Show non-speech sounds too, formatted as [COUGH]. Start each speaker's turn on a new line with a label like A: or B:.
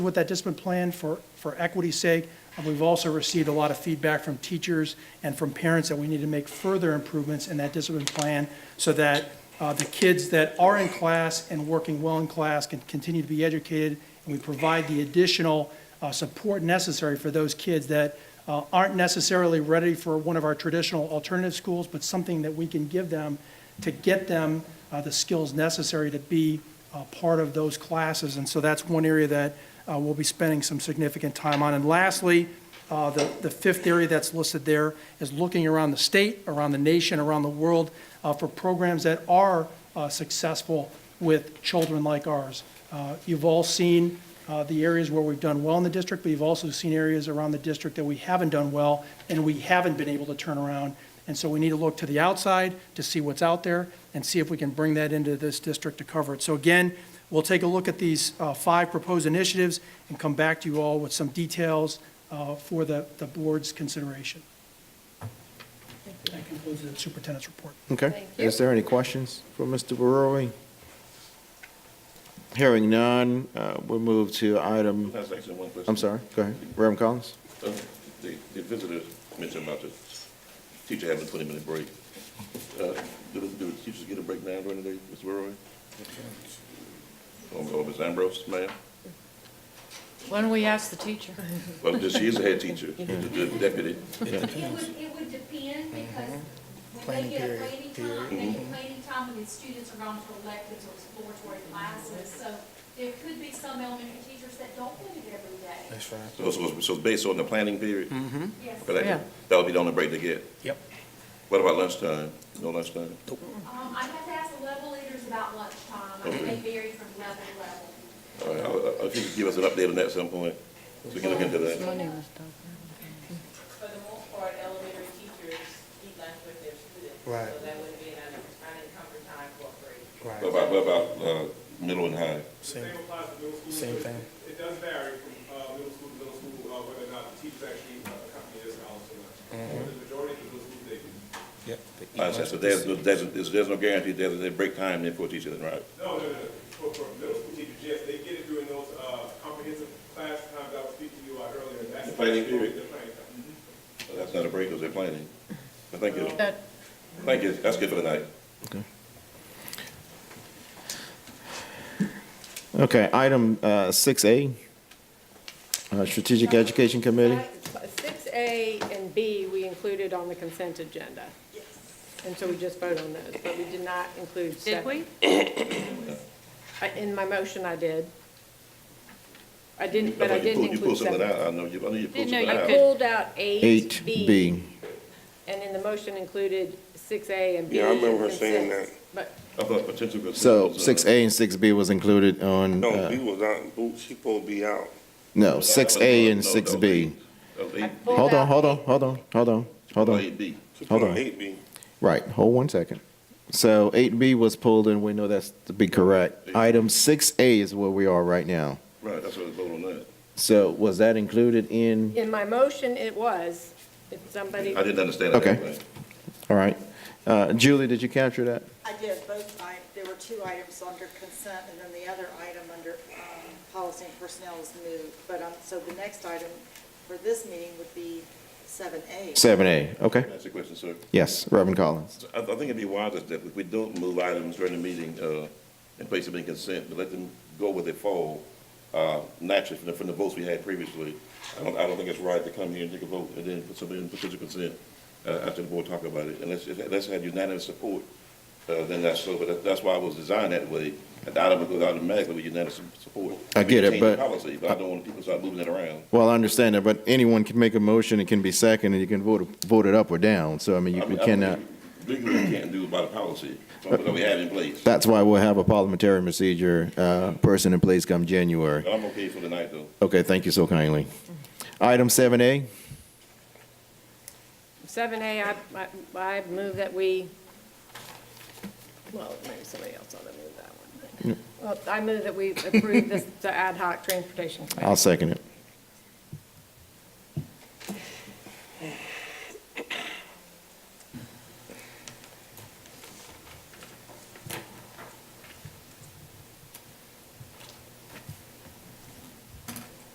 A: with that discipline plan for, for equity's sake. And we've also received a lot of feedback from teachers and from parents that we need to make further improvements in that discipline plan so that uh, the kids that are in class and working well in class can continue to be educated, and we provide the additional uh, support necessary for those kids that uh, aren't necessarily ready for one of our traditional alternative schools, but something that we can give them to get them uh, the skills necessary to be uh, part of those classes. And so that's one area that uh, we'll be spending some significant time on. And lastly, uh, The the fifth area that's listed there is looking around the state, around the nation, around the world uh, for programs that are uh, successful with children like ours. Uh, You've all seen uh, the areas where we've done well in the district, but you've also seen areas around the district that we haven't done well, and we haven't been able to turn around. And so we need to look to the outside to see what's out there and see if we can bring that into this district to cover it. So again, we'll take a look at these uh, five proposed initiatives and come back to you all with some details uh, for the, the board's consideration. That concludes the superintendent's report.
B: Okay. Is there any questions for Mr. Barori? Hearing none, uh, we'll move to item,
C: That's actually one question.
B: I'm sorry, go ahead, Reverend Collins.
C: Uh, The, the visitors mentioned about the teacher having a twenty-minute break. Uh, Do, the- do the teachers get a break now during the day, Ms. Roy? Or, or Ms. Ambrose, ma'am?
D: Why don't we ask the teacher?
C: Well, this- she is a head teacher, the the deputy.
E: It would, it would depend because when they get a planning time, they get planning time when the students are going for electives or exploratory classes. So there could be some elementary teachers that don't do it every day.
F: That's right.
C: So, so, so it's based on the planning period?
E: Yes.
C: But
D: Yeah.
C: that, that would be the only break they get.
F: Yep.
C: What about lunchtime? No lunchtime?
E: Um, I have to ask the level leaders about lunchtime. I mean, they vary from level to level.
C: All right, I'll- I'll- if you could give us an update on that at some point, so we can look into that.
D: My name is Doug.
G: For the most part, elementary teachers eat lunch with their students.
F: Right.
G: So that would be an un- unencumbered time for a break.
C: What about, what about, uh, middle and high?
F: Same,
H: Same applies to middle school.
F: Same thing.
H: It does vary from uh, middle school to middle school, uh, whether or not the teachers actually uh, accompany us out to lunch.
F: Mm-hmm.
H: But the majority of the middle school, they do.
F: yep.
C: I understand, Uh, so there's, no- there's, there's- there's no guarantee there's a break time there for teachers, right?
H: No, no, no, for, for middle school teachers, yes, they get it during those uh, comprehensive class times I was speaking to you about earlier. That's-
C: The planning period.
H: The planning time. Mhm.
C: Well, That's not a break, because they're planning. But thank you,
D: That,
C: thank you, that's good for tonight.
B: Okay, item uh, six A, uh, Strategic Education Committee.
I: Six A and B, we included on the consent agenda. And so we just voted on those, but we did not include
D: did
I: seven.
D: we?
I: [COUGHS] I- In my motion, I did. I didn't,
C: I
I: but I
C: thought you
I: didn't
C: pulled- You
I: include
C: pulled something out,
I: seven.
C: I know you, I know you pulled
D: Didn't know
C: something
D: you
I: I
C: out.
D: could-
I: pulled out eight
B: Eight
I: B,
B: B.
I: and in the motion included six A and B.
J: Yeah, I remember
I: and
J: her saying
I: consent. But
C: I thought potential. consent
B: So
C: was, uh,
B: six A and six B was included on,
J: No,
B: uh,
J: B was out, Boo- she supposed to be out.
B: no, six A and
C: no, no,
B: six B.
C: that was eight-
D: pulled
B: Hold on,
D: out
B: hold on,
D: eight.
B: hold on, hold on, hold on.
C: Eight B.
J: She
B: Hold
J: put
B: on.
J: Eight B.
B: Right, hold one second. So eight B was pulled and we know that's to be correct. Item six A is where we are right now.
C: right, that's what I was voting on that.
B: So was that included in,
I: in my motion, it was, if somebody,
C: I didn't understand it
B: Okay.
C: that way.
B: all right. Uh, Julie, did you capture that?
K: I did both, I, there were two items under consent, and then the other item under um, policy and personnel was moved. But, um, so the next item for this meeting would be seven A.
B: Seven A, okay.
C: That's the question, sir.
B: Yes, Reverend Collins.
C: So I, I think it'd be wise if that if we don't move items during the meeting, uh, and place them in consent, but let them go where they fall, uh, naturally from the, from the votes we had previously. I don't, I don't think it's right to come here and take a vote and then put something in potential consent, uh, after the board talk about it. Unless, unless it had unanimous support, uh, then that's so, but that- that's why it was designed that way. An item would go automatically with unanimous support.
B: I get it,
C: We can change the
B: but-
C: Policy, but I don't want people to start moving it around.
B: Well, I understand that, but anyone can make a motion, it can be second, and you can vote, vote it up or down. So I mean, you
C: I
B: we
C: mean, I
B: cannot,
C: think Legally, we can't do about a policy, something that we have in place.
B: that's why we'll have a parliamentary procedure, uh, person in place come January.
C: But I'm okay for tonight, though.
B: Okay, thank you so kindly. Item seven A,
I: seven A, I, I- I move that we, well, maybe somebody else ought to move that one. Well, I move that we approve this, the ad hoc transportation.
B: I'll second it.